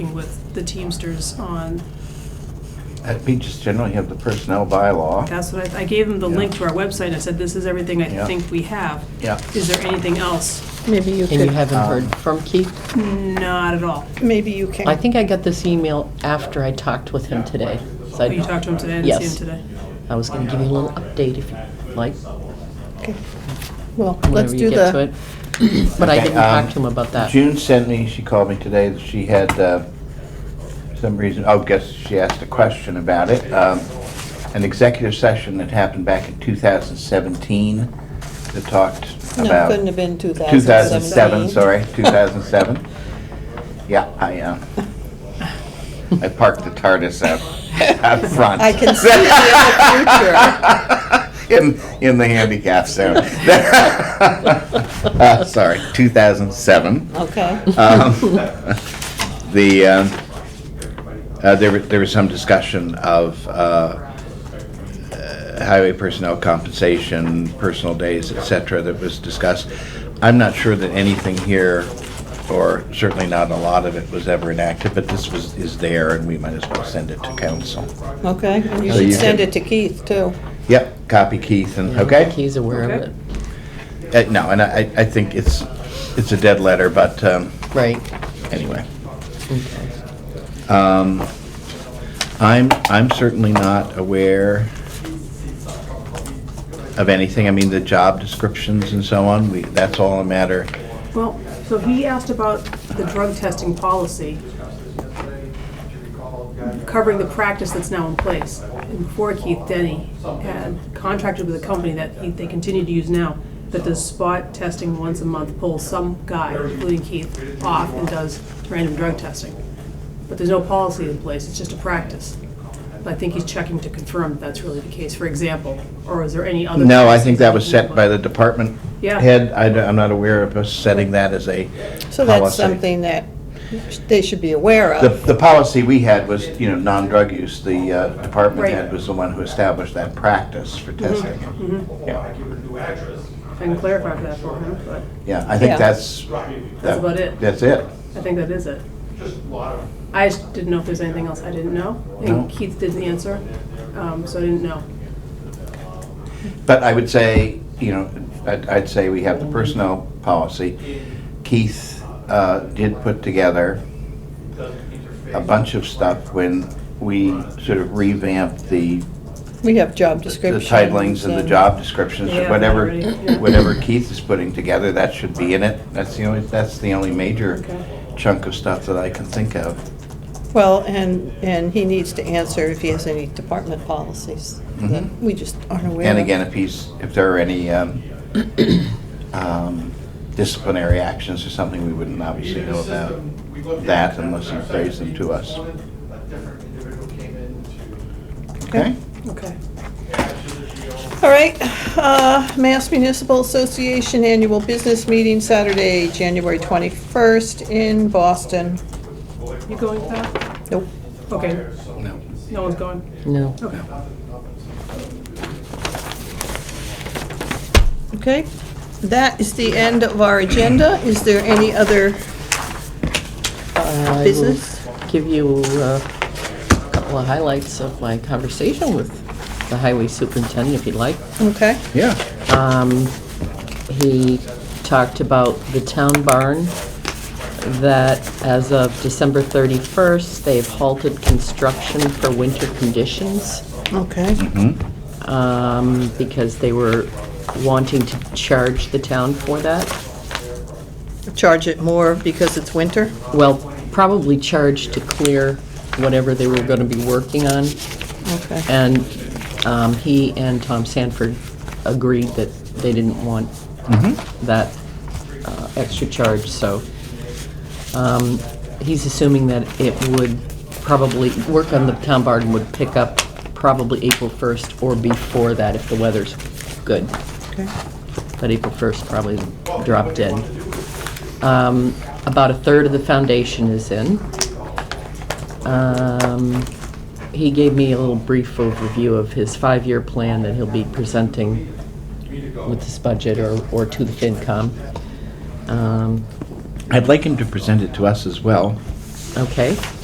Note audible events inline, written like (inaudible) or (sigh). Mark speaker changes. Speaker 1: with the Teamsters on,
Speaker 2: I think just generally have the personnel bylaw.
Speaker 1: that's what I, I gave them the link
Speaker 2: Yeah.
Speaker 1: to our website, I said, this is everything I
Speaker 2: Yeah.
Speaker 1: think we have.
Speaker 2: Yeah.
Speaker 1: Is there anything else?
Speaker 3: Maybe you
Speaker 4: And you
Speaker 3: could,
Speaker 4: haven't
Speaker 2: Um,
Speaker 4: heard from Keith?
Speaker 1: Not at all.
Speaker 5: Maybe you can.
Speaker 4: I think I got this email after I talked with him today. So
Speaker 1: Oh, You
Speaker 4: I,
Speaker 1: talked to him today, I didn't
Speaker 4: Yes.
Speaker 1: see him today.
Speaker 4: I was gonna give you a little update if you'd like,
Speaker 5: Okay. Well, let's
Speaker 4: whenever you
Speaker 5: do
Speaker 4: get to
Speaker 5: the,
Speaker 4: it. But I
Speaker 2: Okay,
Speaker 4: didn't talk
Speaker 2: um,
Speaker 4: to him about that.
Speaker 2: June sent me, she called me today, that she had, uh, some reason, oh, guess she asked a question about it. Um, An executive session that happened back in 2017 that talked
Speaker 5: no,
Speaker 2: about...
Speaker 5: couldn't have been 2017.
Speaker 2: 2007, sorry, 2007. Yeah, I, uh, I parked the TARDIS out, out front.
Speaker 5: I can see it in the future.
Speaker 2: (laughs) in in the handicap zone. (laughs) Uh, sorry, 2007.
Speaker 5: Okay.
Speaker 2: (laughs) Um, the um, uh, there were- there was some discussion of. Uh, uh, Highway personnel compensation, personal days, et cetera, that was discussed. I'm not sure that anything here, or certainly not a lot of it, was ever enacted, but this was, is there, and we might as well send it to council.
Speaker 5: Okay, and you
Speaker 2: So
Speaker 5: should
Speaker 2: you
Speaker 5: send
Speaker 2: can-
Speaker 5: it to Keith, too.
Speaker 2: Yep, copy Keith, and,
Speaker 4: I don't
Speaker 2: okay?
Speaker 4: think He's aware of
Speaker 1: Okay.
Speaker 4: it.
Speaker 2: Uh, No, and I, I think it's, it's a dead letter, but um,
Speaker 4: Right,
Speaker 2: anyway.
Speaker 4: okay.
Speaker 2: Um, I'm, I'm certainly not aware of anything. I mean, the job descriptions and so on, we, that's all a matter.
Speaker 1: Well, so he asked about the drug testing policy, covering the practice that's now in place. And Before Keith Denny had contracted with a company that he- they continue to use now, that does spot testing once a month, pulls some guy, including Keith, off and does random drug testing. But there's no policy in place, it's just a practice. But I think he's checking to confirm that that's really the case, for example, or is there any other?
Speaker 2: No, I
Speaker 1: policy
Speaker 2: think that was set by the department
Speaker 1: Yeah.
Speaker 2: head. I, am not aware of us setting that as a
Speaker 5: So that's
Speaker 2: policy.
Speaker 5: something that they should be aware
Speaker 2: The,
Speaker 5: of.
Speaker 2: the policy we had was, you know, non-drug use. The uh, department
Speaker 1: Right. Mm-hmm.
Speaker 2: head was the one who established that practice for testing. Yeah,
Speaker 1: I can clarify that for him, but
Speaker 2: yeah, I think
Speaker 5: Yeah.
Speaker 2: that's. that-
Speaker 1: about it.
Speaker 2: That's it.
Speaker 1: I think that is it. I just didn't know if there's anything else I didn't know.
Speaker 2: No.
Speaker 1: And Keith didn't answer, um, so I didn't know.
Speaker 2: But I would say, you know, I'd, I'd say we have the personnel policy. Keith uh, did put together a bunch of stuff when we sort of revamped the
Speaker 5: We have job
Speaker 2: the
Speaker 5: descriptions.
Speaker 2: titlings and the job descriptions,
Speaker 1: Yeah,
Speaker 2: whatever,
Speaker 1: already, yeah.
Speaker 2: whatever Keith is putting together, that should be in it. That's the only, that's the only major
Speaker 1: Okay.
Speaker 2: chunk of stuff that I can think of.
Speaker 5: Well, and, and he needs to answer if he has any department policies that
Speaker 2: Mhm.
Speaker 5: we just aren't aware of.
Speaker 2: And again, if he's, if there are any um, um, disciplinary actions or something, we wouldn't obviously know about that unless he raised them to us. Okay?
Speaker 1: Okay.
Speaker 5: All right, uh, Mass Municipal Association Annual Business Meeting, Saturday, January 21st in Boston.
Speaker 1: You going to that?
Speaker 5: Nope.
Speaker 1: Okay,
Speaker 2: No.
Speaker 1: no one's going.
Speaker 4: No.
Speaker 1: Okay.
Speaker 5: Okay, that is the end of our agenda. Is there any other
Speaker 4: I will
Speaker 5: business?
Speaker 4: Give you uh, a couple of highlights of my conversation with the highway superintendent, if you'd like.
Speaker 5: Okay,
Speaker 2: Yeah.
Speaker 4: Um, He talked about the town barn, that as of December 31st, they've halted construction for winter conditions
Speaker 5: okay,
Speaker 4: um, because they were wanting to charge the town for that.
Speaker 5: charge it more because it's winter?
Speaker 4: Well, probably charge to clear whatever they were going to be working on.
Speaker 5: Okay,
Speaker 4: And um, he and Tom Sanford agreed that they didn't want that uh, extra charge, so um, he's assuming that it would probably, work on the town barn would pick up probably April 1st or before that if the weather's good.
Speaker 5: okay.
Speaker 4: But April 1st probably dropped in. Um, About a third of the foundation is in. Um, He gave me a little brief overview of his five-year plan that he'll be presenting with this budget or or to the FinCom. Um,
Speaker 2: I'd like him to present it to us as well.
Speaker 4: Okay.